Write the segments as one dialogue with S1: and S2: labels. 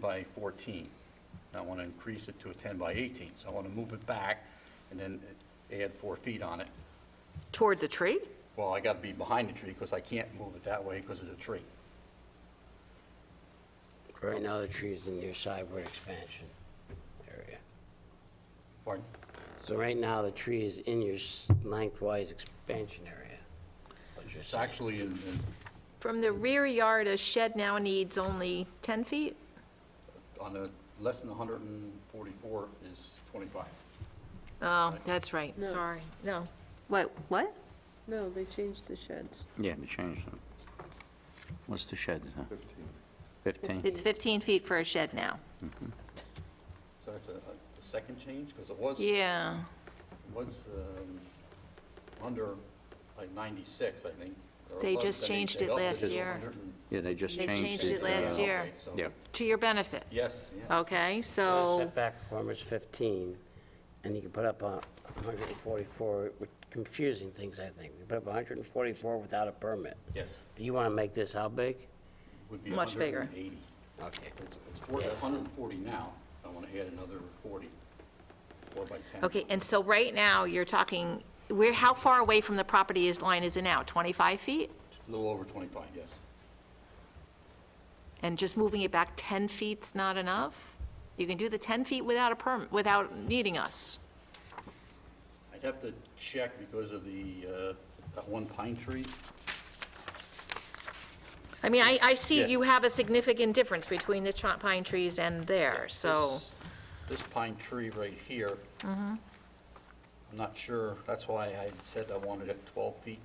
S1: by 14. I want to increase it to a 10 by 18, so I want to move it back and then add four feet on it.
S2: Toward the tree?
S1: Well, I got to be behind the tree because I can't move it that way because of the tree.
S3: Right now, the tree is in your sideward expansion area.
S1: Pardon?
S3: So right now, the tree is in your s- lengthwise expansion area. what you're
S1: It's
S3: saying.
S1: actually in, in-
S2: From the rear yard, a shed now needs only 10 feet?
S1: on the, less than 144 is 25.
S2: Oh, that's right,
S4: No.
S2: sorry. No. What, what?
S4: No, they changed the sheds.
S5: Yeah, they changed them. What's the sheds now? 15?
S2: It's 15 feet for a shed now.
S1: So that's a, a second change because it was,
S2: Yeah.
S1: was um, under like 96, I think. or
S2: They
S1: above
S2: just
S1: 78.
S2: changed
S1: They
S2: it
S1: upped
S2: last
S1: to
S2: year.
S1: 100.
S5: Yeah, they just
S2: They
S5: changed it.
S2: changed it last
S5: uh,
S2: year. Oh.
S1: Okay, so-
S5: Yeah,
S2: To your benefit.
S1: Yes, yes.
S2: Okay,
S3: So the
S2: so,
S3: Setback requirement's 15, and you can put up a 144, which- confusing things, I think. You put up 144 without a permit.
S1: Yes,
S3: Do you want to make this how big?
S1: would be
S2: Much bigger.
S1: 180.
S3: Okay.
S1: It's it's four-
S3: Yeah.
S1: 140 now, I want to add another 40, 4 by 10.
S2: okay, and so right now, you're talking, where, how far away from the property is, line is it now? 25 feet?
S1: A little over 25, yes.
S2: And just moving it back 10 feet's not enough? You can do the 10 feet without a permit, without needing us.
S1: I'd have to check because of the, uh, that one pine tree.
S2: I mean, I, I see
S1: Yeah.
S2: you have a significant difference between the chi- pine trees and there, so, Mm-hmm.
S1: This- This pine tree right here. I'm not sure, that's why I said I wanted it 12 feet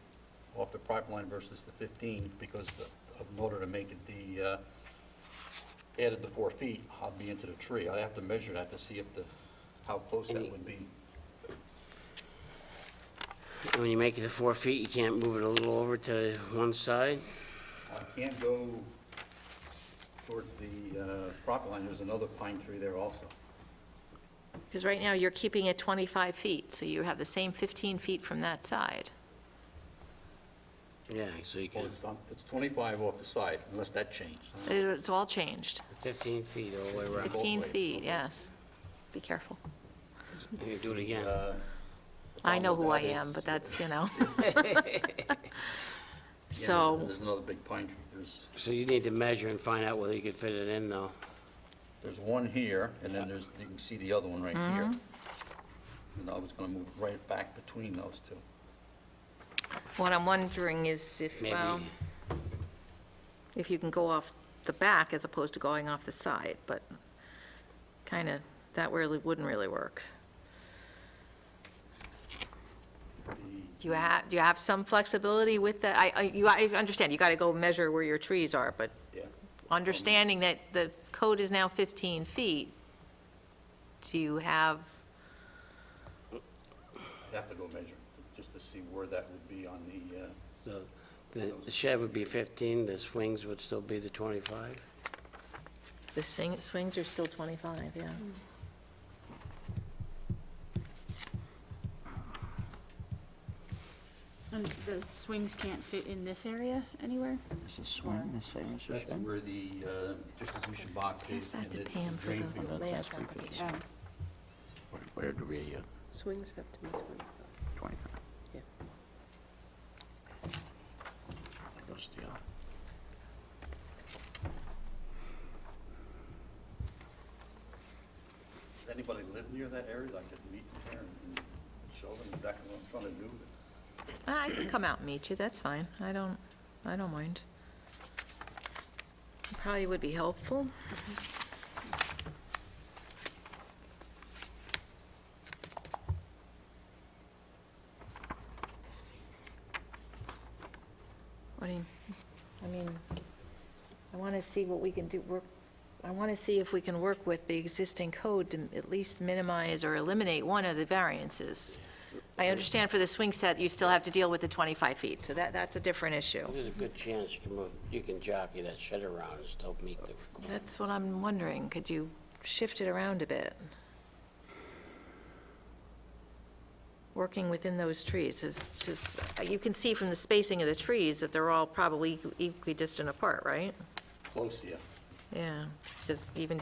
S1: off the property line versus the 15, because the- in order to make it the, uh, added the four feet, I'd be into the tree. I'd have to measure that to see if the, how close that would be.
S3: And when you make it to four feet, you can't move it a little over to one side?
S1: I can't go towards the uh, property line, there's another pine tree there also.
S2: because right now you're keeping it 25 feet, so you have the same 15 feet from that side.
S3: Yeah, so you
S1: Well,
S3: can,
S1: it's on- it's 25 off the side, unless that changed.
S2: It- It's all changed.
S3: 15 feet all the way around.
S2: 15
S1: ways, both
S2: feet,
S1: ways.
S2: yes. Be careful.
S3: You can do it again.
S2: I know
S1: problem
S2: who I
S1: with that
S2: am,
S1: is-
S2: but that's, you know.
S1: Yeah, there's-
S2: So,
S1: There's another big pine tree. There's,
S3: So you need to measure and find out whether you could fit it in, though.
S1: there's one here, and then there's, you can see the other one right here. And I was gonna move right back between those two.
S2: what I'm wondering is if,
S3: Maybe,
S2: well, if you can go off the back as opposed to going off the side, but kind of, that really, wouldn't really work. Do you have, do you have some flexibility with that? I, I, you, I understand, you got to go measure where your trees are, but
S1: Yeah.
S2: understanding that the code is now 15 feet, do you have,
S1: I'd have to go measure, just to see where that would be on the, uh,
S3: so the the shed would be 15, the swings would still be the 25?
S2: the swing- swings are still 25, yeah?
S6: And the swings can't fit in this area anywhere?
S5: Is this swing the same as the
S1: that's
S5: shed?
S1: where the, uh, distribution box
S2: Yes,
S1: is. and
S2: that's a
S1: the
S2: Pam for
S1: drain
S2: the
S1: field.
S2: land
S5: that's
S2: application.
S6: Oh,
S5: Where- Where do we, uh,
S4: Swings have to be 25.
S5: 25?
S4: Yeah.
S5: There goes the other.
S1: Does Anybody live near that area, I could meet them there and and show them exactly what I'm trying to do?
S2: Ah, I can come out and meet you, that's fine. I don't, I don't mind. Probably would be helpful. What do you, I mean, I want to see what we can do, work, I want to see if we can work with the existing code to at least minimize or eliminate one of the variances. I understand for the swing set, you still have to deal with the 25 feet, so that, that's a different issue.
S3: There's a good chance you can move, you can jockey that shed around and still meet the requirement.
S2: That's what I'm wondering, could you shift it around a bit? Working within those trees is just, you can see from the spacing of the trees that they're all probably equi- equidistant apart, right?
S1: Close, yeah.
S2: Yeah, because even down